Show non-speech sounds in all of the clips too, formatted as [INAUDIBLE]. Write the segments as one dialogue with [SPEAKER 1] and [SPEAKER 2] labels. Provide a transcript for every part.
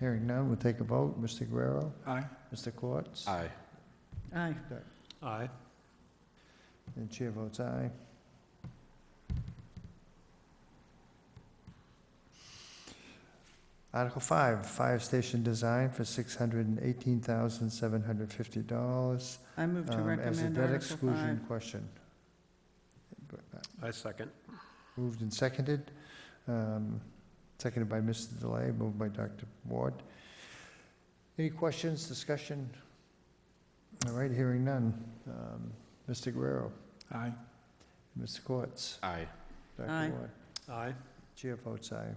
[SPEAKER 1] Hearing none, we'll take a vote. Mr. Guerrero?
[SPEAKER 2] Aye.
[SPEAKER 1] Mr. Quartz?
[SPEAKER 3] Aye.
[SPEAKER 4] Aye.
[SPEAKER 2] Aye.
[SPEAKER 1] And the chair votes aye. Article five, fire station design for six hundred and eighteen thousand, seven hundred fifty dollars.
[SPEAKER 4] I move to
[SPEAKER 1] Um, As a
[SPEAKER 4] recommend
[SPEAKER 1] debt
[SPEAKER 4] Article 5.
[SPEAKER 1] exclusion question. uh,
[SPEAKER 2] I second.
[SPEAKER 1] Moved and seconded, um, seconded by Mr. Delay, moved by Dr. Ward. Any questions, discussion? All right, hearing none. Um, Mr. Guerrero,
[SPEAKER 2] Aye.
[SPEAKER 1] Mr. Quartz,
[SPEAKER 3] Aye.
[SPEAKER 4] Aye.
[SPEAKER 1] Dr. Ward.
[SPEAKER 2] Aye.
[SPEAKER 1] Chair votes aye.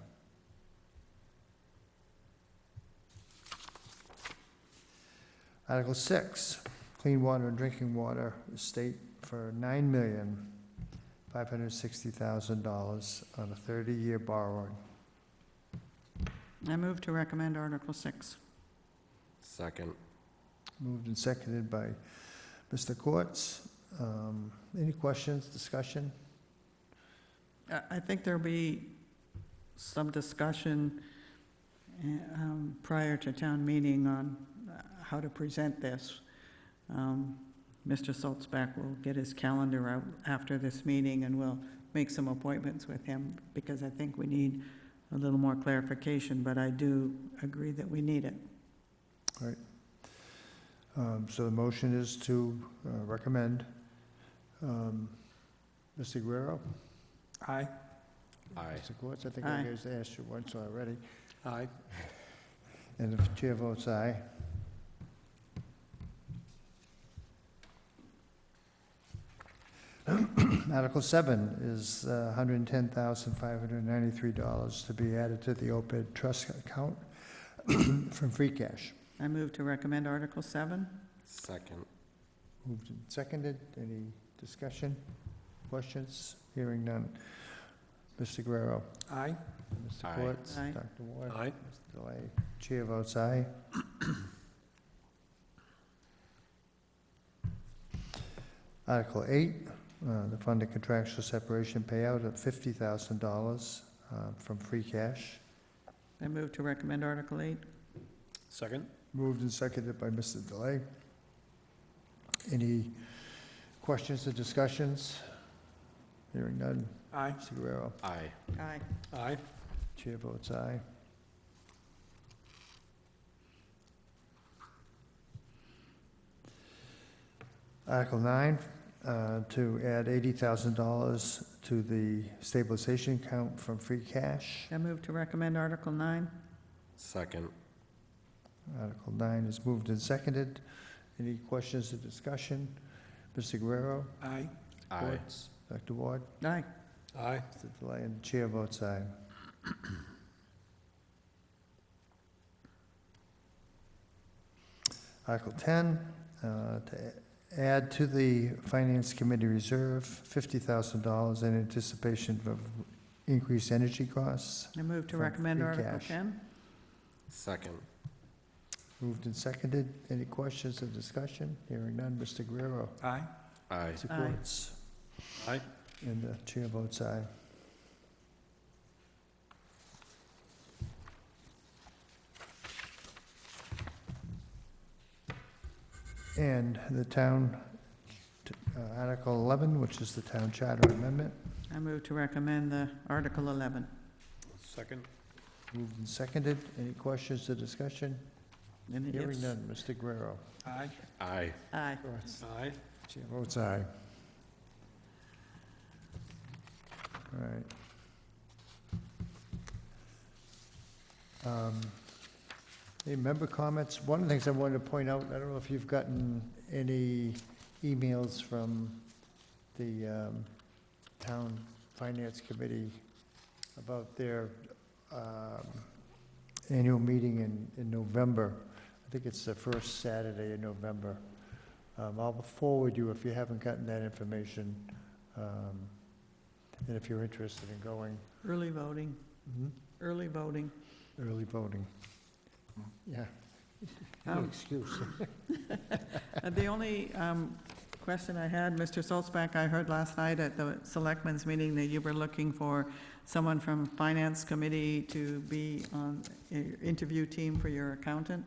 [SPEAKER 1] Article six, clean water and drinking water estate for nine million, five hundred sixty thousand dollars on a thirty-year borrowing.
[SPEAKER 4] I move to recommend Article 6.
[SPEAKER 3] Second.
[SPEAKER 1] Moved and seconded by Mr. Quartz. Um, any questions, discussion?
[SPEAKER 4] I- I think there'll be some discussion eh, um, prior to town meeting on uh, how to present this. Um, Mr. Saltzback will get his calendar out after this meeting, and we'll make some appointments with him, because I think we need a little more clarification, but I do agree that we need it.
[SPEAKER 1] Um, so the motion is to uh, recommend. Um, Mr. Guerrero?
[SPEAKER 2] Aye.
[SPEAKER 3] Aye.
[SPEAKER 1] Mr. Quartz, I think I
[SPEAKER 4] Aye.
[SPEAKER 1] guys asked you once already.
[SPEAKER 2] Aye.
[SPEAKER 1] And if the chair votes aye, [CLEARS THROAT] Article seven is uh, $110,593 to be added to the OPEB trust account [CLEARS THROAT] from free cash.
[SPEAKER 4] I move to recommend Article 7.
[SPEAKER 3] Second.
[SPEAKER 1] Moved and seconded. Any discussion, questions? Hearing none. Mr. Guerrero?
[SPEAKER 2] Aye.
[SPEAKER 1] Mr.
[SPEAKER 3] Aye.
[SPEAKER 1] Quartz?
[SPEAKER 4] Aye.
[SPEAKER 1] Dr. Ward?
[SPEAKER 2] Aye.
[SPEAKER 1] Mr. Delay? Chair votes aye. Article eight, uh, the fund a contractual separation payout of fifty thousand dollars uh, from free cash.
[SPEAKER 4] I move to recommend Article 8.
[SPEAKER 2] Second.
[SPEAKER 1] Moved and seconded by Mr. Delay. Any questions or discussions? Hearing none.
[SPEAKER 2] Aye.
[SPEAKER 1] Mr. Guerrero.
[SPEAKER 3] Aye.
[SPEAKER 4] Aye.
[SPEAKER 2] Aye.
[SPEAKER 1] Chair votes aye. Article nine, uh, to add eighty thousand dollars to the stabilization account from free cash.
[SPEAKER 4] I move to recommend Article 9.
[SPEAKER 3] Second.
[SPEAKER 1] Article nine is moved and seconded. Any questions or discussion? Mr. Guerrero?
[SPEAKER 2] Aye.
[SPEAKER 3] Aye.
[SPEAKER 1] Schwartz, Dr. Ward?
[SPEAKER 4] Aye.
[SPEAKER 2] Aye.
[SPEAKER 1] Mr. Delay, and the chair votes eh? aye. Article 10, uh, to add to the Finance Committee Reserve $50,000 in anticipation of increased energy costs.
[SPEAKER 4] I move to
[SPEAKER 1] From
[SPEAKER 4] recommend
[SPEAKER 1] free
[SPEAKER 4] Article
[SPEAKER 1] cash.
[SPEAKER 4] 10.
[SPEAKER 3] Second.
[SPEAKER 1] Moved and seconded. Any questions or discussion? Hearing none. Mr. Guerrero.
[SPEAKER 2] Aye.
[SPEAKER 3] Aye.
[SPEAKER 1] Mr.
[SPEAKER 4] Aye.
[SPEAKER 1] Quartz.
[SPEAKER 2] Aye.
[SPEAKER 1] And the chair votes aye. And the town, uh, Article 11, which is the town charter amendment,
[SPEAKER 4] I move to recommend the Article 11.
[SPEAKER 2] Second.
[SPEAKER 1] moved and seconded. Any questions or discussion?
[SPEAKER 4] And it
[SPEAKER 1] Hearing
[SPEAKER 4] is-
[SPEAKER 1] none. Mr. Guerrero.
[SPEAKER 2] Aye.
[SPEAKER 3] Aye.
[SPEAKER 4] Aye.
[SPEAKER 2] Aye.
[SPEAKER 1] Chair votes aye. All right. Um, Any member comments? One of the things I wanted to point out, I don't know if you've gotten any emails from the um, Town Finance Committee about their um, annual meeting in, in November. I think it's the first Saturday in November. Um, I'll forward you, if you haven't gotten that information, um, and if you're interested in going,
[SPEAKER 4] Early voting, early voting.
[SPEAKER 1] early voting. Yeah, no
[SPEAKER 4] Um, [LAUGHS]
[SPEAKER 1] excuse. [LAUGHS]
[SPEAKER 4] uh, The only um, question I had, Mr. Solzback, I heard last night at the selectmen's meeting that you were looking for someone from Finance Committee to be on your interview team for your accountant.